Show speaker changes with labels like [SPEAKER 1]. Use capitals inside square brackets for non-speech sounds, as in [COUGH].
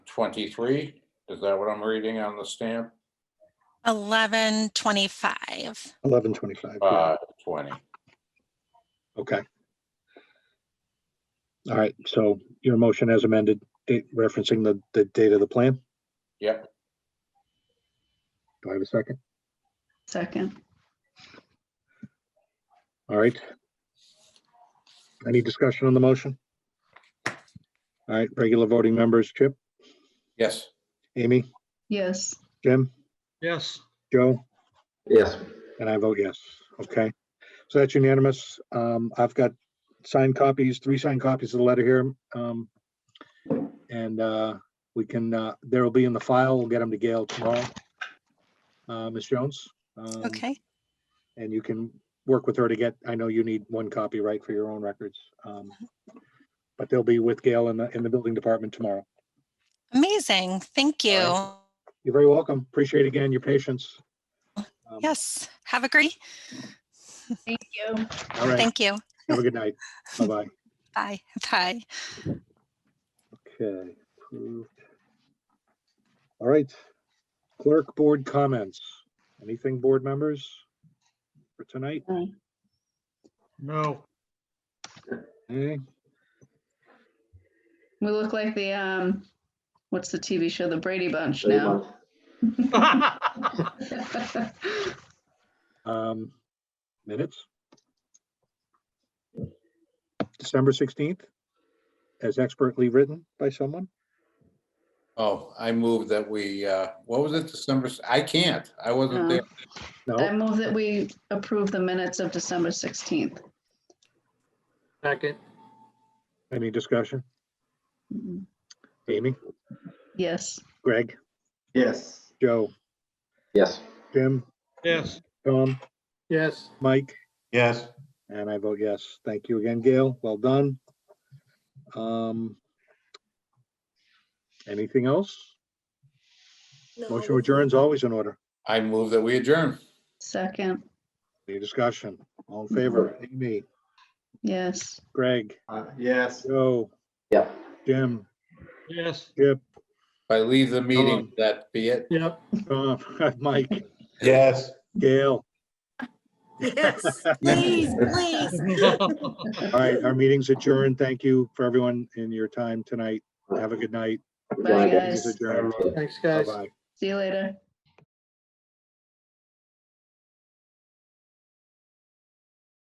[SPEAKER 1] twenty-three? Is that what I'm reading on the stamp?
[SPEAKER 2] Eleven twenty-five.
[SPEAKER 3] Eleven twenty-five.
[SPEAKER 1] Five Uh, twenty.
[SPEAKER 3] Okay. All right, so your motion as amended, date referencing the, the date of the plan?
[SPEAKER 1] Yep.
[SPEAKER 3] Do I have a second?
[SPEAKER 4] Second,
[SPEAKER 3] All right. Any discussion on the motion? All right, regular voting members, Chip,
[SPEAKER 1] Yes.
[SPEAKER 3] Amy,
[SPEAKER 4] yes,
[SPEAKER 3] Jim,
[SPEAKER 5] yes,
[SPEAKER 3] Joe?
[SPEAKER 6] yes,
[SPEAKER 3] And I vote yes. Okay. So that's unanimous. Um, I've got signed copies, three signed copies of the letter here. Um, and, uh, we can, uh, there will be in the file. We'll get them to Gail tomorrow. Uh, Ms. Jones. um,
[SPEAKER 2] Okay.
[SPEAKER 3] And you can work with her to get, I know you need one copy, right, for your own records. Um, but they'll be with Gail in the, in the building department tomorrow.
[SPEAKER 2] Amazing. Thank you.
[SPEAKER 3] You're very welcome. Appreciate again your patience. Um,
[SPEAKER 2] Yes. Have a great,
[SPEAKER 4] thank you.
[SPEAKER 3] All right.
[SPEAKER 2] thank you.
[SPEAKER 3] Have a good night. Bye-bye.
[SPEAKER 2] Bye. [LAUGHS]
[SPEAKER 3] [LAUGHS]
[SPEAKER 2] Bye.
[SPEAKER 3] Okay. approved. All right. Clerk Board comments. Anything, board members? For tonight?
[SPEAKER 5] no,
[SPEAKER 3] Eh,
[SPEAKER 4] We look like the, um, what's the TV show, The Brady Bunch
[SPEAKER 6] Brady
[SPEAKER 4] now?
[SPEAKER 3] um, Minutes? December 16th? As expertly written by someone?
[SPEAKER 1] Oh, I moved that we, uh, what was it, December? s- I can't. I wasn't
[SPEAKER 4] No.
[SPEAKER 1] there.
[SPEAKER 4] [LAUGHS] I
[SPEAKER 3] No?
[SPEAKER 4] move that we approve the minutes of December 16th.
[SPEAKER 5] second,
[SPEAKER 3] Any discussion?
[SPEAKER 4] Mhm.
[SPEAKER 3] Amy?
[SPEAKER 4] Yes,
[SPEAKER 3] Greg?
[SPEAKER 6] yes,
[SPEAKER 3] Joe?
[SPEAKER 6] yes,
[SPEAKER 3] Jim?
[SPEAKER 5] yes,
[SPEAKER 3] Tom?
[SPEAKER 5] yes,
[SPEAKER 3] Mike?
[SPEAKER 7] yes,
[SPEAKER 3] And I vote yes. Thank you again, Gail. Well done. Um, Anything else? Motion adjourns always in order.
[SPEAKER 1] I moved that we adjourn.
[SPEAKER 4] second,
[SPEAKER 3] Any discussion? All in favor? Amy,
[SPEAKER 4] yes.
[SPEAKER 3] Greg,
[SPEAKER 6] Mm-hmm. uh, yes,
[SPEAKER 3] Joe,
[SPEAKER 6] yeah.
[SPEAKER 3] Jim,
[SPEAKER 5] yes,
[SPEAKER 1] If I leave the meeting,
[SPEAKER 3] on.
[SPEAKER 1] that be it.
[SPEAKER 5] yep.
[SPEAKER 3] Tom, [LAUGHS] Mike,
[SPEAKER 7] yes.
[SPEAKER 3] Gail.
[SPEAKER 8] Yes, please, please.
[SPEAKER 3] All right, our meeting's adjourned. Thank you for everyone in your time tonight. Have a good night.
[SPEAKER 6] Good
[SPEAKER 4] Bye,
[SPEAKER 6] night,
[SPEAKER 3] Meeting's
[SPEAKER 4] guys.
[SPEAKER 3] adjourned.
[SPEAKER 5] Thanks, guys.
[SPEAKER 3] Bye-bye.
[SPEAKER 4] See you later.